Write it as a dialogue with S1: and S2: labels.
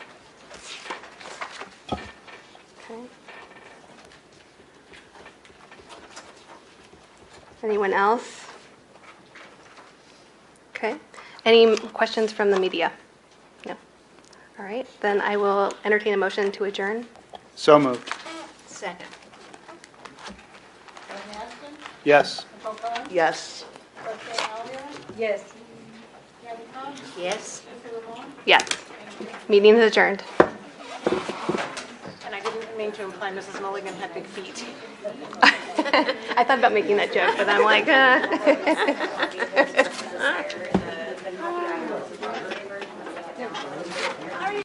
S1: Anyone else? Okay. Any questions from the media? No. All right, then I will entertain a motion to adjourn.
S2: So moved.
S3: Second.
S4: Joanne Aston,
S2: Yes.
S4: Nicole Collins,
S3: Yes.
S4: Roxanne Albier,
S5: Yes.
S4: Gabby Clark,
S3: Yes.
S4: Lisa Lamone,
S1: Yes. Meeting is adjourned.
S3: And I didn't mean to imply Mrs. Mulligan had big feet.
S1: I thought about making that joke, but I'm like, uh.